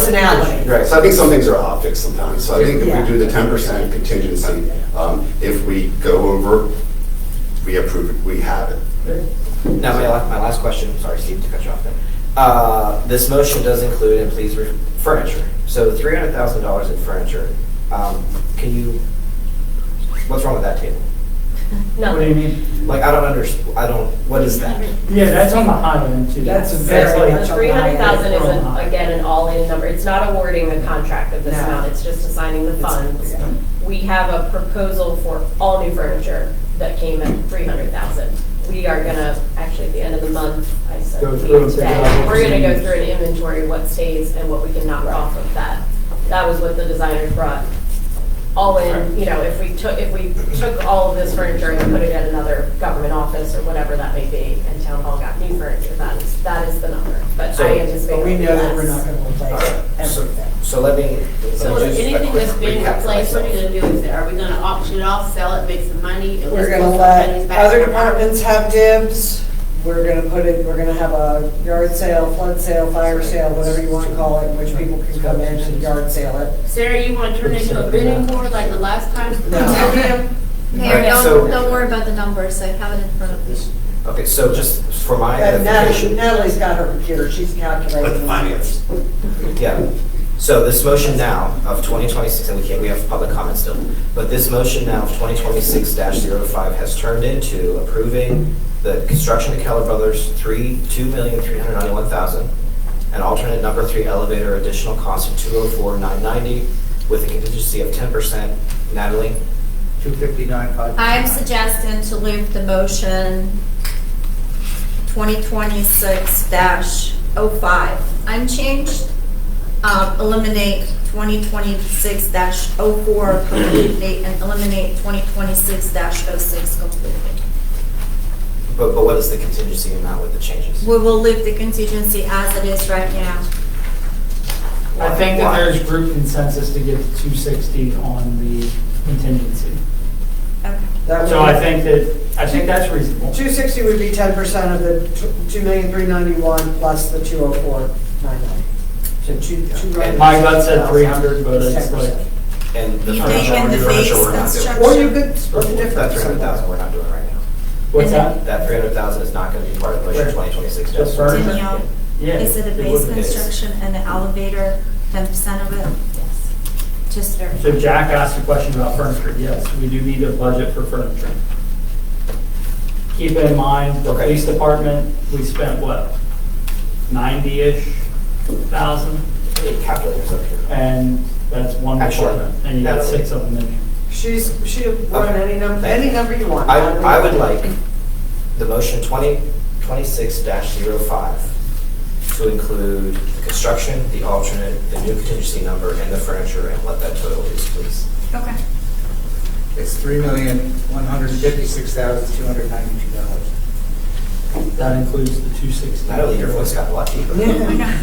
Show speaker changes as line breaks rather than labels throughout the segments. personality.
Right, so I think some things are optics sometimes, so I think if
Yeah.
we do the ten percent contingency, um, if we go over, we approve it, we have it.
Now, my, la- my last question, sorry Steve to cut you off there. Uh, This motion does include, and please, re- furniture. So $300,000 in furniture, Um, can you, what's wrong with that table?
What do you mean?
Like, I don't under, I don't, what is that?
Yeah, that's on the high end too.
That's
like-
very much.
The three hundred thousand is, a- again, an all-in number, it's not awarding a contract of this
No.
amount, it's just assigning the funds. We have a proposal for all new furniture that came at three hundred thousand. We are gonna, actually, at the end of the month, I said,
Go
we
through and
today,
figure out what
we're gonna go
we
through an inventory, what stays and what we can knock off of that. That was what the designers brought, all in, you know, if we took, if we took all of this furniture and put it at another government office or whatever that may be, and town hall got new furniture, that is, that is the number, but
So-
I anticipate.
But we know that we're not
less.
gonna replace everything.
So let me. let me
So
just
if anything that's being
recap
replaced, what are
myself.
you gonna do with it? Are we gonna auction it off, sell it, make some money? and
We're
let's
gonna
put
let
some back
other
in our pocket?
departments have dibs. We're gonna put it, we're gonna have a yard sale, flood sale, fire sale, whatever you wanna call it, in which people can come in and yard sale it.
Sarah, you wanna turn it into a bidding board like the last time?
No.
Mayor,
Alright, so-
don't, don't worry about the numbers, I have it in front of me.
Okay, so just for my
And Natalie,
edification.
Natalie's got her computer, she's calculating.
But the finance,
Yeah. So this motion now of 2026, and we can't, we have public comment still, but this motion now of 2026-05 has turned into approving the construction of Keller Brothers, three, $2,391,000, and alternate number three elevator additional cost of 204,990 with a contingency of 10%. Natalie?
259,
I'm suggesting to leave the motion 2026-05 unchanged, um, eliminate 2026-04 completely, and eliminate 2026-06 completely.
But, but what is the contingency amount with the changes?
We will leave the contingency as it is right now.
I think that
Why?
there's group consensus to get to two sixty on the contingency.
Okay.
That
So
would-
I think that, I think that's reasonable.
260 would be 10% of the tw- 2,391 plus the 204,990. So two, two.
And
My gut said three hundred, but it's like,
And the
You
furniture,
name and the
furniture
base
we're not doing.
construction.
Or you could split the difference.
That 300,000 we're not doing right now.
what's that?
That 300,000 is not going to be part of motion
Where?
2026.
The furniture?
Danielle,
Yeah.
is it a base
would be.
construction and the elevator, 10% of it? Yes. Just verify.
So Jack asked a question about furniture. Yes, we do need a budget for furniture. Keep in mind, the
Okay.
police department, we spent what? Ninety-ish thousand?
Calculators up here.
And that's one
Actually,
department, and you got
that's-
six of them in here.
She's, she'll run any number, any number you want.
I, I would like the motion 2026-05 to include the construction, the alternate, the new contingency number, and the furniture, and what that total is, please.
Okay.
it's $3,156,292.
That includes the two sixty.
Natalie, your voice got lucky. but-
Yeah.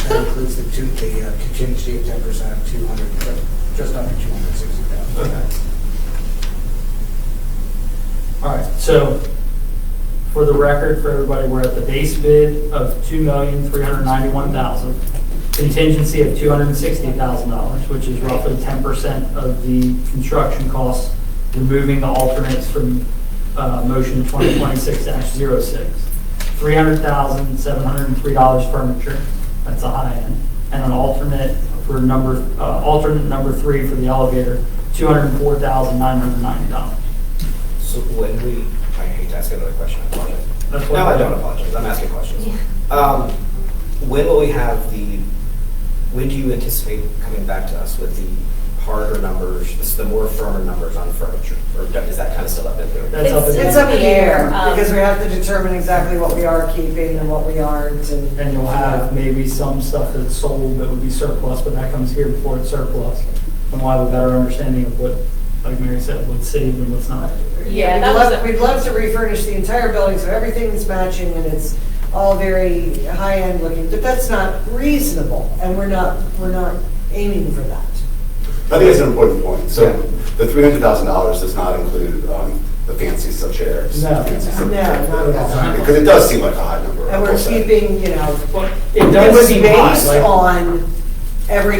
That includes the two, the uh, contingency of 10%, 200, just under 260,000.
Okay.
All right, so for the record, for everybody, we're at the base bid of $2,391,000, contingency of $260,000, which is roughly 10% of the construction costs, removing the alternates from uh, motion 2026-06. $300,703 furniture, that's a high end, and an alternate for number, uh, alternate number three for the elevator, $204,990.
So when we, I hate to ask another question, I apologize.
That's
No,
why-
I don't apologize, I'm asking questions. Um, When will we have the, when do you anticipate coming back to us with the harder numbers, this- the more firmer numbers on furniture? Or is that kind of still up in there?
That's up in
It's
the
up in the air,
Um,
because we have to determine exactly what we are keeping and what we aren't, and
And you'll have maybe some stuff that's sold that would be surplus, but that comes here before it's surplus. And we'll have a better understanding of what, like Mary said, what's saved and what's not.
Yeah,
We'd
that was
love-
a-
We'd love to refurnish the entire building, so everything's matching and it's all very high-end looking, but that's not reasonable, and we're not, we're not aiming for that.
I think it's an important point, so
Yeah.
the three hundred thousand dollars does not include, um, the fancy stuff chairs.
No.
fancy stuff-
No, not at all.
Because it does seem like a high number.
And we're
I'll say.
keeping, you know,
But It
it
does
was
seem high,
based
like,
on every